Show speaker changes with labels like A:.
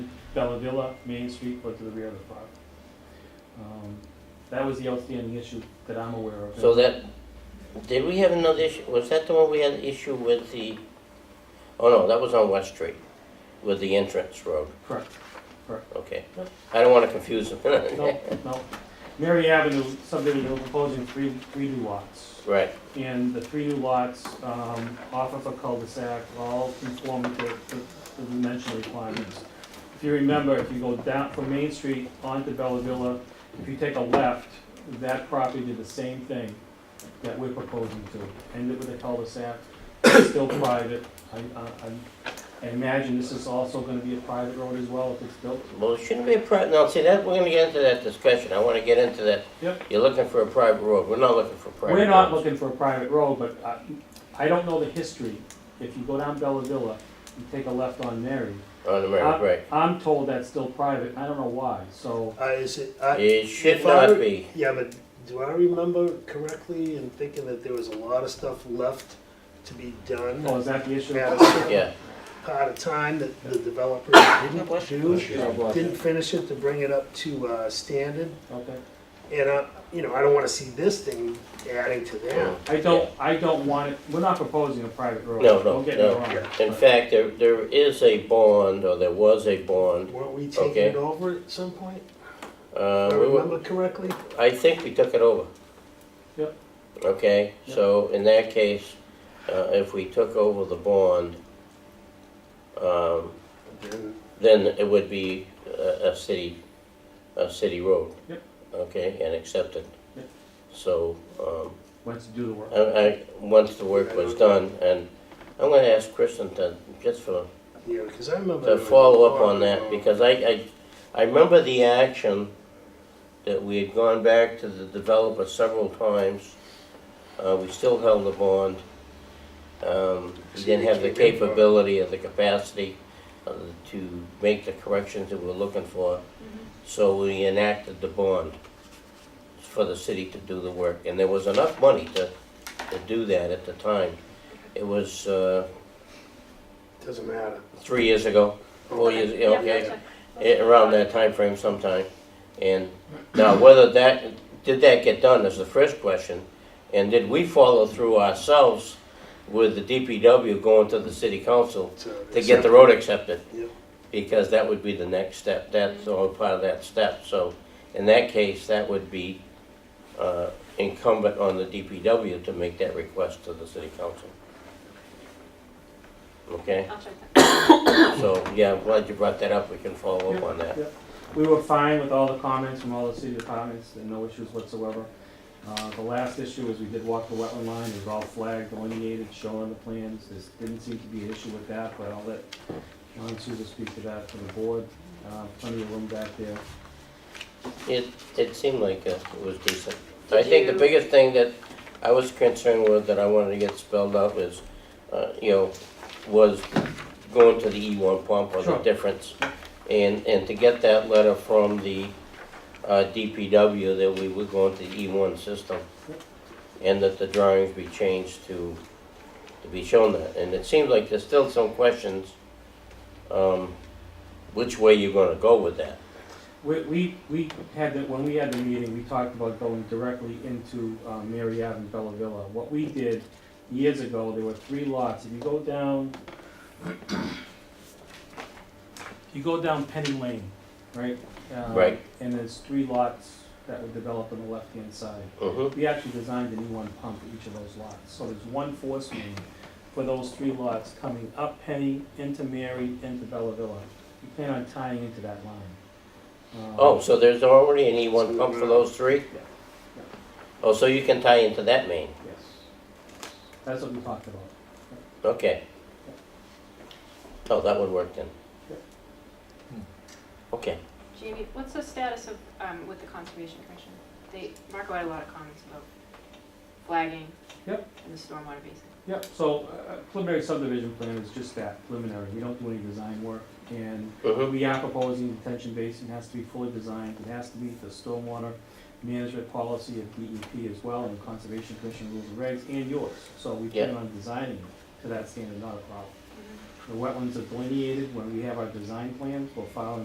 A: Bellavilla, Main Street, but to the rear of the property. Um, That was the outstanding issue that I'm aware of.
B: So that, did we have another issue, was that the one we had issue with the, oh no, that was on West Street, with the entrance road,
A: Correct.
B: okay.
A: Yep.
B: I don't wanna confuse them.
A: No, no. Mary Avenue subdivision, we're proposing three, three new lots.
B: Right,
A: And the three new lots, um, off of a cul-de-sac, all conform to the, the dimensional requirements. If you remember, if you go down from Main Street onto Bella Villa, if you take a left, that property did the same thing that we're proposing to. Ended with a cul-de-sac, still private. I, I, I imagine this is also gonna be a private road as well if it's built.
B: well, it shouldn't be a pri, no, see, that, we're gonna get into that discussion, I wanna get into that.
A: Yep.
B: You're looking for a private road, we're not looking for a private road.
A: We're not looking for a private road, but I, I don't know the history. If you go down Bella Villa and take a left on Mary,
B: On the
A: Uh,
B: Merrick, right.
A: I'm told that's still private, I don't know why, so,
C: Uh, is it, I,
B: It should
C: if I
B: not
C: were-
B: be,
C: yeah, but do I remember correctly in thinking that there was a lot of stuff left to be done?
A: oh, is that the issue?
C: At a certain
B: yeah,
C: part of time that the developer didn't do,
D: you.
C: didn't finish it to bring it up to, uh, standard.
A: Okay.
C: And, uh, you know, I don't wanna see this thing adding to that.
A: I don't, I don't want it, we're not proposing a private road.
B: No, no,
A: Don't get me
B: no.
A: wrong.
B: in fact, there, there is a bond, or there was a bond,
C: Weren't we taking
B: Oh. Okay.
C: it over at some point?
B: uh,
C: If I
B: we were,
C: remember correctly?
B: I think we took it over.
A: Yep.
B: Okay,
A: Yep.
B: so in that case, uh, if we took over the bond, um,
C: Then
B: then it would be a, a city, a city road.
A: Yep.
B: Okay, and accepted.
A: Yep.
B: So, um,
A: Once you do the work.
B: I, I, once the work was done, and I'm gonna ask Kristen to, just for
C: Yeah, because I remember.
B: to
C: there was a
B: follow up
C: lot
B: on that,
C: of-
B: because I, I, I remember the action that we had gone back to the developer several times. Uh, we still held the bond. Um, we didn't have the capability or the capacity uh, to make the corrections that we were looking for. So we enacted the bond for the city to do the work, and there was enough money to, to do that at the time. It was, uh,
C: Doesn't matter.
B: three years ago, four years, yeah, okay? eh, around that time frame, sometime. And now whether that, did that get done is the first question. And did we follow through ourselves with the DPW going to the city council
C: So-
B: to get the road accepted?
C: Yep.
B: Because that would be the next step, that's all part of that step. So in that case, that would be uh, incumbent on the DPW to make that request to the city council. Okay,
D: I'll check that.
B: so, yeah, I'm glad you brought that up, we can follow up on that.
A: Yeah, yeah. We were fine with all the comments from all the city departments, and no issues whatsoever. Uh, the last issue is we did walk the wetland line, it was all flagged, delineated, shown on the plans, there didn't seem to be an issue with that, but I'll let Ron Souza speak to that for the board, uh, plenty of room back there.
B: It, it seemed like uh, it was decent.
D: Did
B: I think the
D: you-
B: biggest thing that I was concerned with, that I wanted to get spelled out is, uh, you know, was going to the E1 pump or the
A: Sure.
B: difference. And, and to get that letter from the uh, DPW that we were going to the E1 system and that the drawings be changed to, to be shown that. And it seems like there's still some questions, um, which way you're gonna go with that.
A: We, we, we had the, when we had the meeting, we talked about going directly into, um, Mary Ave and Bella Villa. What we did years ago, there were three lots, if you go down, if you go down Penny Lane, right? Uh,
B: Right.
A: And there's three lots that would develop on the left-hand side.
B: Mm-hmm.
A: We actually designed an E one pump for each of those lots, so there's one force main for those three lots coming up Penny, into Mary, into Bella Villa. We plan on tying into that line. Um,
B: Oh, so there's already an E1 pump for those three?
A: yeah.
B: Oh, so you can tie into that main,
A: Yes. That's what we talked about.
B: okay. Oh, that would work then. Okay,
D: Jamie, what's the status of, um, with the Conservation Commission? They, Marco had a lot of comments about flagging.
A: Yep.
D: And the stormwater basin.
A: Yep, so uh, preliminary subdivision plan is just that, preliminary, we don't do any design work. And
B: mm-hmm,
A: we are proposing detention basin has to be fully designed, it has to meet the stormwater management policy of DEP as well, and the Conservation Commission rules and regs, and yours. So we plan
B: Yeah.
A: on designing
B: Mm-hmm.
A: it to that standard, not a problem. The wetlands are delineated, when we have our design plans, we'll file an